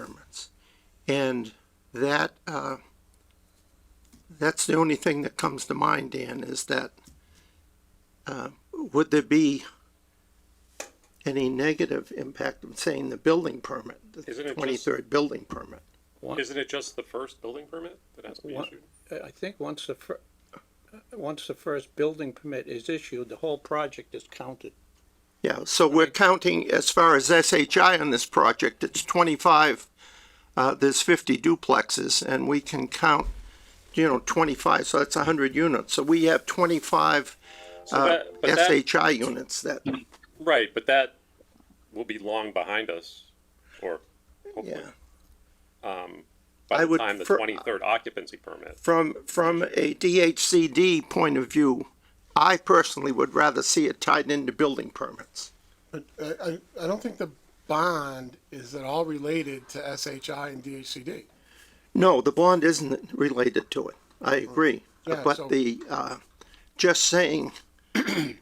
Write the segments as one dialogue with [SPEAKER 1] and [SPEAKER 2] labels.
[SPEAKER 1] permits. And that, uh, that's the only thing that comes to mind, Dan, is that, uh, would there be any negative impact of saying the building permit,
[SPEAKER 2] Isn't it
[SPEAKER 1] the
[SPEAKER 2] just-
[SPEAKER 1] twenty-third building permit?
[SPEAKER 2] Isn't it just the first building permit that has to be
[SPEAKER 3] What?
[SPEAKER 2] issued?
[SPEAKER 3] uh, I think once the fir- uh, once the first building permit is issued, the whole project is counted.
[SPEAKER 1] Yeah, so we're counting, as far as SHI on this project, it's twenty-five, uh, there's fifty duplexes, and we can count, you know, twenty-five, so that's hundred units, so we have twenty-five,
[SPEAKER 2] So
[SPEAKER 1] uh,
[SPEAKER 2] that- but that-
[SPEAKER 1] SHI units that,
[SPEAKER 2] Right, but that will be long behind us, or hopefully,
[SPEAKER 1] yeah.
[SPEAKER 2] um,
[SPEAKER 1] I
[SPEAKER 2] by the
[SPEAKER 1] would
[SPEAKER 2] time the
[SPEAKER 1] fir-
[SPEAKER 2] twenty-third occupancy permit.
[SPEAKER 1] From, from a DHCD point of view, I personally would rather see it tied into building permits.
[SPEAKER 4] But I, I, I don't think the bond is at all related to SHI and DHCD.
[SPEAKER 1] No, the bond isn't related to it, I agree,
[SPEAKER 4] Yeah,
[SPEAKER 1] but
[SPEAKER 4] so-
[SPEAKER 1] the, uh, just saying,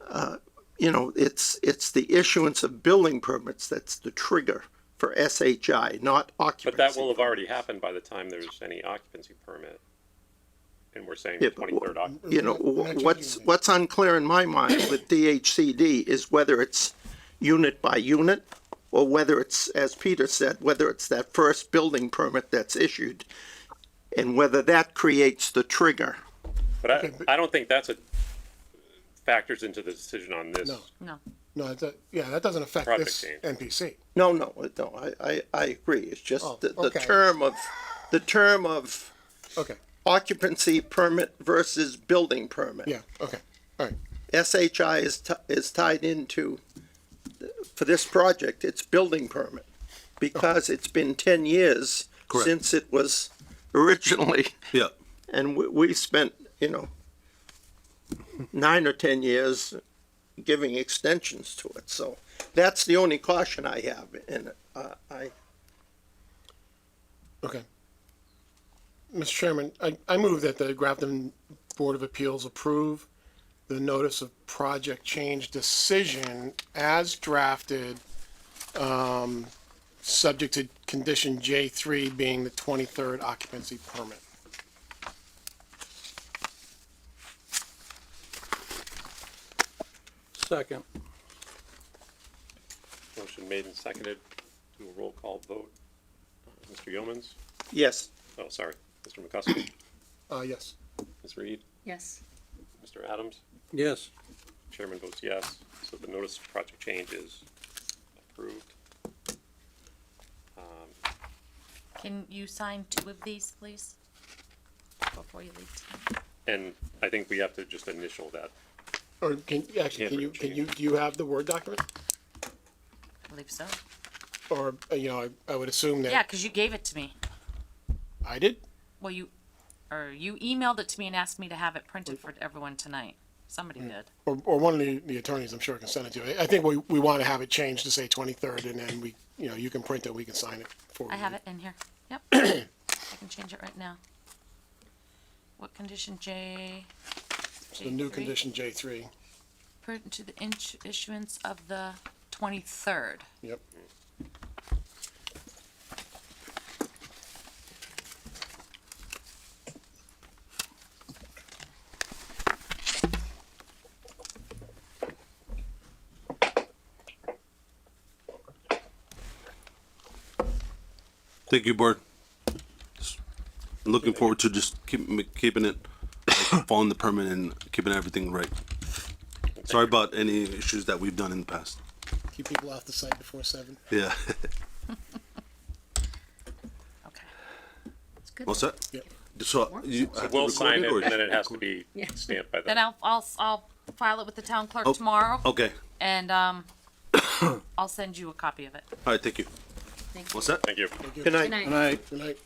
[SPEAKER 1] uh, you know, it's, it's the issuance of building permits that's the trigger for SHI, not
[SPEAKER 2] But that
[SPEAKER 1] occupancy.
[SPEAKER 2] will have already happened by the time there's any occupancy permit. And we're saying
[SPEAKER 1] Yeah,
[SPEAKER 2] the
[SPEAKER 1] but wh-
[SPEAKER 2] twenty-third occupancy.
[SPEAKER 1] You know,
[SPEAKER 4] We're not changing
[SPEAKER 1] what's,
[SPEAKER 4] anything.
[SPEAKER 1] what's unclear in my mind with DHCD is whether it's unit by unit, or whether it's, as Peter said, whether it's that first building permit that's issued, and whether that creates the trigger.
[SPEAKER 2] But I,
[SPEAKER 4] Okay, but-
[SPEAKER 2] I don't think that's a, factors into the decision on this.
[SPEAKER 4] No.
[SPEAKER 5] No.
[SPEAKER 4] No, it do- yeah, that doesn't affect
[SPEAKER 2] Project
[SPEAKER 4] this
[SPEAKER 2] team.
[SPEAKER 4] NPC.
[SPEAKER 1] No, no, no, I, I, I agree, it's
[SPEAKER 4] Oh,
[SPEAKER 1] just the, the
[SPEAKER 4] okay.
[SPEAKER 1] term of, the term of
[SPEAKER 4] Okay,
[SPEAKER 1] occupancy permit versus building permit.
[SPEAKER 4] yeah, okay, all right.
[SPEAKER 1] SHI is, ti- is tied into, for this project, it's building permit, because it's been ten years
[SPEAKER 6] Correct.
[SPEAKER 1] since it was originally,
[SPEAKER 6] Yeah,
[SPEAKER 1] and we, we spent, you know, nine or ten years giving extensions to it, so that's the only caution I have in it. Uh, I,
[SPEAKER 4] Okay. Mr. Chairman, I, I move that the Grafton Board of Appeals approve the notice of project change decision as drafted, um, subject to condition J three being the twenty-third occupancy permit.
[SPEAKER 3] Second,
[SPEAKER 2] Motion made and seconded, do a roll call vote. Uh, Mr. Yeomans,
[SPEAKER 1] yes,
[SPEAKER 2] oh, sorry, Mr. McCusker,
[SPEAKER 4] Uh, yes.
[SPEAKER 2] Ms. Reed,
[SPEAKER 5] Yes.
[SPEAKER 2] Mr. Adams,
[SPEAKER 3] yes,
[SPEAKER 2] chairman votes yes, so the notice of project change is approved.
[SPEAKER 5] Can you sign two of these, please? Before you leave tonight?
[SPEAKER 2] And I think we have to just initial that.
[SPEAKER 4] Or can, actually, can you, can you, do you have the Word document?
[SPEAKER 5] I believe so.
[SPEAKER 4] Or, uh, you know, I, I would assume
[SPEAKER 5] Yeah,
[SPEAKER 4] that
[SPEAKER 5] because you gave it to me.
[SPEAKER 4] I did?
[SPEAKER 5] Well, you, or you emailed it to me and asked me to have it printed for everyone tonight. Somebody did.
[SPEAKER 4] Or, or one of the, the attorneys, I'm sure can send it to you. I- I think we, we want to have it changed to say twenty-third and then we, you know, you can print it, we can sign it for you.
[SPEAKER 5] I have it in here. Yep. I can change it right now. What condition, J?
[SPEAKER 4] The new
[SPEAKER 5] J3?
[SPEAKER 4] condition J three,
[SPEAKER 5] Print to the inch- issuance of the twenty-third.
[SPEAKER 4] yep.
[SPEAKER 6] thank you, board. Just Looking forward to just keep, keeping it, like, following the permit and keeping everything right. Sorry about any issues that we've done in the past.
[SPEAKER 4] Keep people off the site before seven.
[SPEAKER 6] Yeah,
[SPEAKER 5] Okay. That's good.
[SPEAKER 6] all set?
[SPEAKER 4] Yep.
[SPEAKER 6] So you have to
[SPEAKER 2] We'll
[SPEAKER 6] record
[SPEAKER 2] sign it
[SPEAKER 6] or-
[SPEAKER 2] and then it has to be stamped by
[SPEAKER 5] Then
[SPEAKER 2] the,
[SPEAKER 5] I'll, I'll, I'll file it with the town clerk
[SPEAKER 6] Oh,
[SPEAKER 5] tomorrow.
[SPEAKER 6] Okay,
[SPEAKER 5] And, um, I'll send you a copy of it.
[SPEAKER 6] all right, thank you.
[SPEAKER 5] Thank
[SPEAKER 6] What's that?
[SPEAKER 2] thank you.
[SPEAKER 1] good night.
[SPEAKER 3] and I,
[SPEAKER 4] Good night,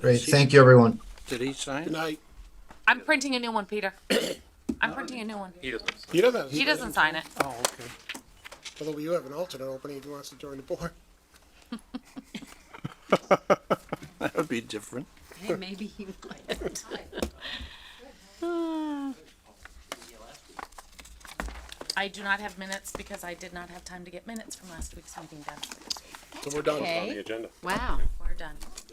[SPEAKER 7] Great, thank you, everyone.
[SPEAKER 3] did he
[SPEAKER 4] good
[SPEAKER 3] sign?
[SPEAKER 4] night.
[SPEAKER 5] I'm printing a new one, Peter. I'm printing a new one.
[SPEAKER 2] He doesn't-
[SPEAKER 4] He doesn't have.
[SPEAKER 5] He doesn't sign it.
[SPEAKER 3] Oh, okay.
[SPEAKER 4] Although you have an alternate opening if he wants to join the board.
[SPEAKER 3] That would be different.
[SPEAKER 5] Maybe he might. I do not have minutes because I did not have time to get minutes from last week's meeting done.
[SPEAKER 4] So we're done.
[SPEAKER 2] on the agenda.
[SPEAKER 5] Wow. done.